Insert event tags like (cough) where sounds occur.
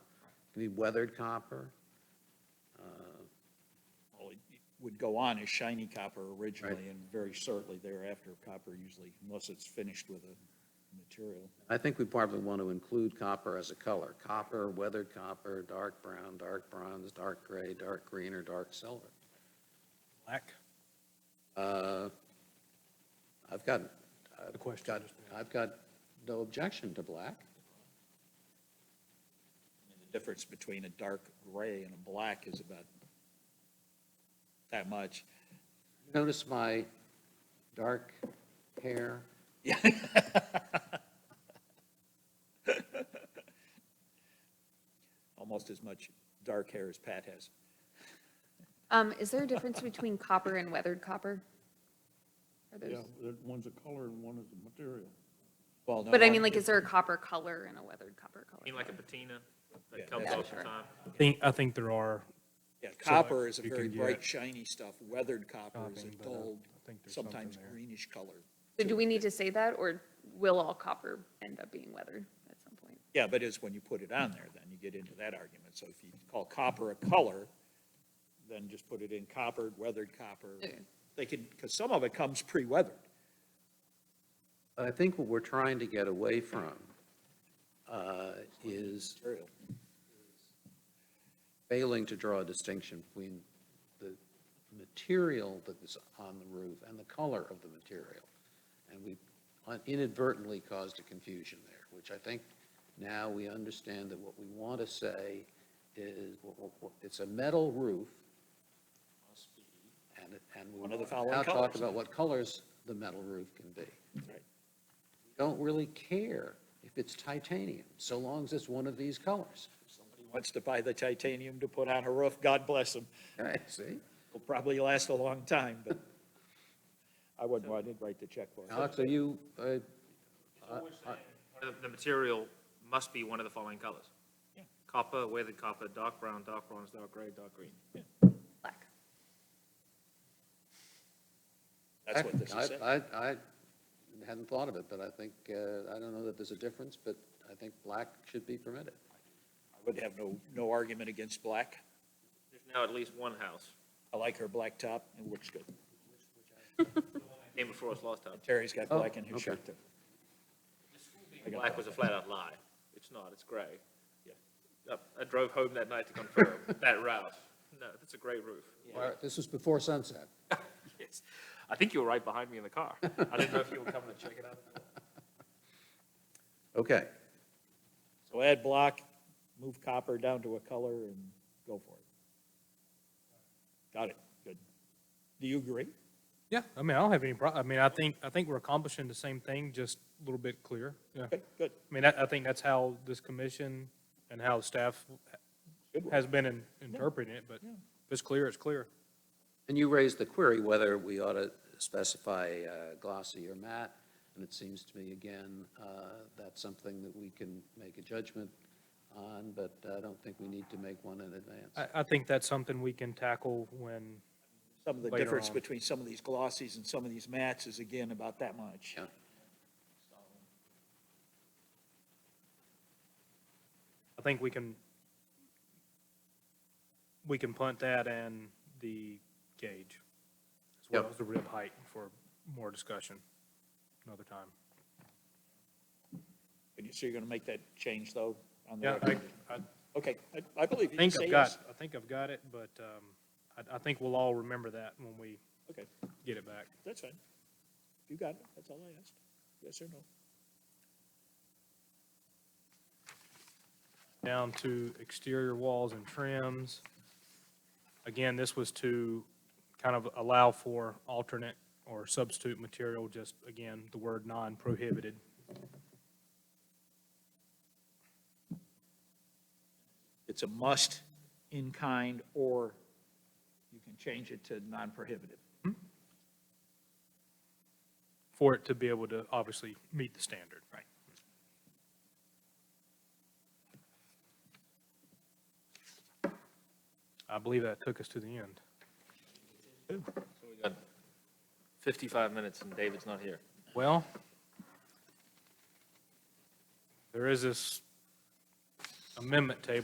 It could be weathered copper. Uh, Well, it it would go on as shiny copper originally and very shortly thereafter, copper usually, unless it's finished with a material. I think we probably want to include copper as a color, copper, weathered copper, dark brown, dark bronze, dark gray, dark green, or dark silver. Black? Uh, I've got, I've The question got, is- I've got no objection to black. And The difference between a dark gray and a black is about that much. (laughs) Notice my dark hair? Yeah. Almost as much dark hair as Pat has. Um, is there a difference between copper and weathered copper? Are Yeah, those- that one's a color and one is a material. Well, no, But I one- mean, like, is there a copper color and a weathered copper color? I mean, like a patina Yeah, that comes yeah, off the sure. top. I think, I think there are, Yeah, copper is a you can very get bright shiny stuff. Weathered copper is a Copying, but, uh, dull, I think there's something sometimes there. greenish color. So do we need to say that, or will all copper end up being weathered at some point? Yeah, but it's when you put it on there, then you get into that argument. So if you call copper a color, then just put it in coppered, weathered copper. Okay. They could, because some of it comes pre-weathered. But I think what we're trying to get away from uh, is material. failing to draw a distinction between the material that is on the roof and the color of the material. And we inadvertently caused a confusion there, which I think now we understand that what we want to say is, w- w- w- it's a metal roof. And, it- and we'll One of the following now talk colors. about what colors the metal roof can be. Right. Don't really care if it's titanium, so long as it's one of these colors. (laughs) Somebody Wants to buy the titanium to put on a roof, God bless them. Okay, see? It'll probably last a long time, but I wouldn't want to write the check for it. Alex, are you, uh, The, the material must be one of the following colors. Copper, weathered copper, dark brown, dark bronze, dark gray, dark green. Black. That's what this is I- saying. I, I hadn't thought of it, but I think, uh, I don't know that there's a difference, but I think black should be permitted. I would have no, no argument against black. There's now at least one house, I like her black top, it looks good. came before us last time. Terry's got Oh, black in his okay. shirt too. Black was a flat-out lie. It's not, it's gray. Yeah. I drove home that night to confirm (laughs) that route. No, that's a gray roof. All right, This was before sunset. Yes. I think you were right behind me in the car. (laughs) I didn't know if you were coming to check it out. Okay, So add block, move copper down to a color and go for it. Got it, good. Do you agree? yeah, I mean, I don't have any prob, I mean, I think, I think we're accomplishing the same thing, just a little bit clearer, yeah. Good, good. I mean, I, I think that's how this commission and how staff Good work. has been in- interpreting it, but if it's clear, it's clear. and you raised the query whether we ought to specify uh, glossy or matte, and it seems to me, again, uh, that's something that we can make a judgment on, but I don't think we need to make one in advance. I, I think that's something we can tackle when, Some of the Later difference on. between some of these glossies and some of these mattes is again about that much. Yeah. I think we can, we can punt that and the gauge, as well Yep. as the rib height for more discussion another time. And you- So you're gonna make that change though? on the Yeah, I, record? I Okay, I, I believe you can think say I've yes. got, I think I've got it, but, um, I, I think we'll all remember that when we Okay, get it back. that's fine. If You got it, that's all I asked. Yes or no? down to exterior walls and trims. Again, this was to kind of allow for alternate or substitute material, just again, the word non-prohibited. It's a must in kind or you can change it to non-prohibitive. for it to be able to obviously meet the standard. Right. I believe that took us to the end. We got 55 minutes and David's not here. Well, there is this amendment table